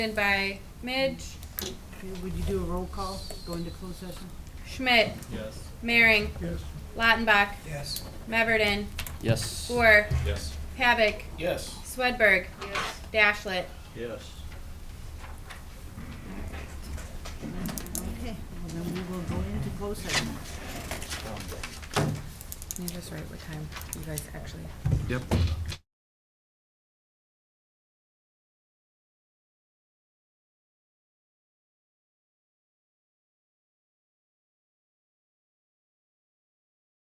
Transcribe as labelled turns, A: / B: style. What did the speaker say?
A: Seconded by Midge.
B: Would you do a roll call, go into closed session?
A: Schmidt.
C: Yes.
A: Mehring.
D: Yes.
A: Lautenbach.
D: Yes.
A: Meverden.
E: Yes.
A: Boer.
C: Yes.
A: Pavic.
D: Yes.
A: Swedberg. Dashlet.
C: Yes.
B: Okay, well then we will go into closed session.
F: Can you just write what time you guys actually?
E: Yep.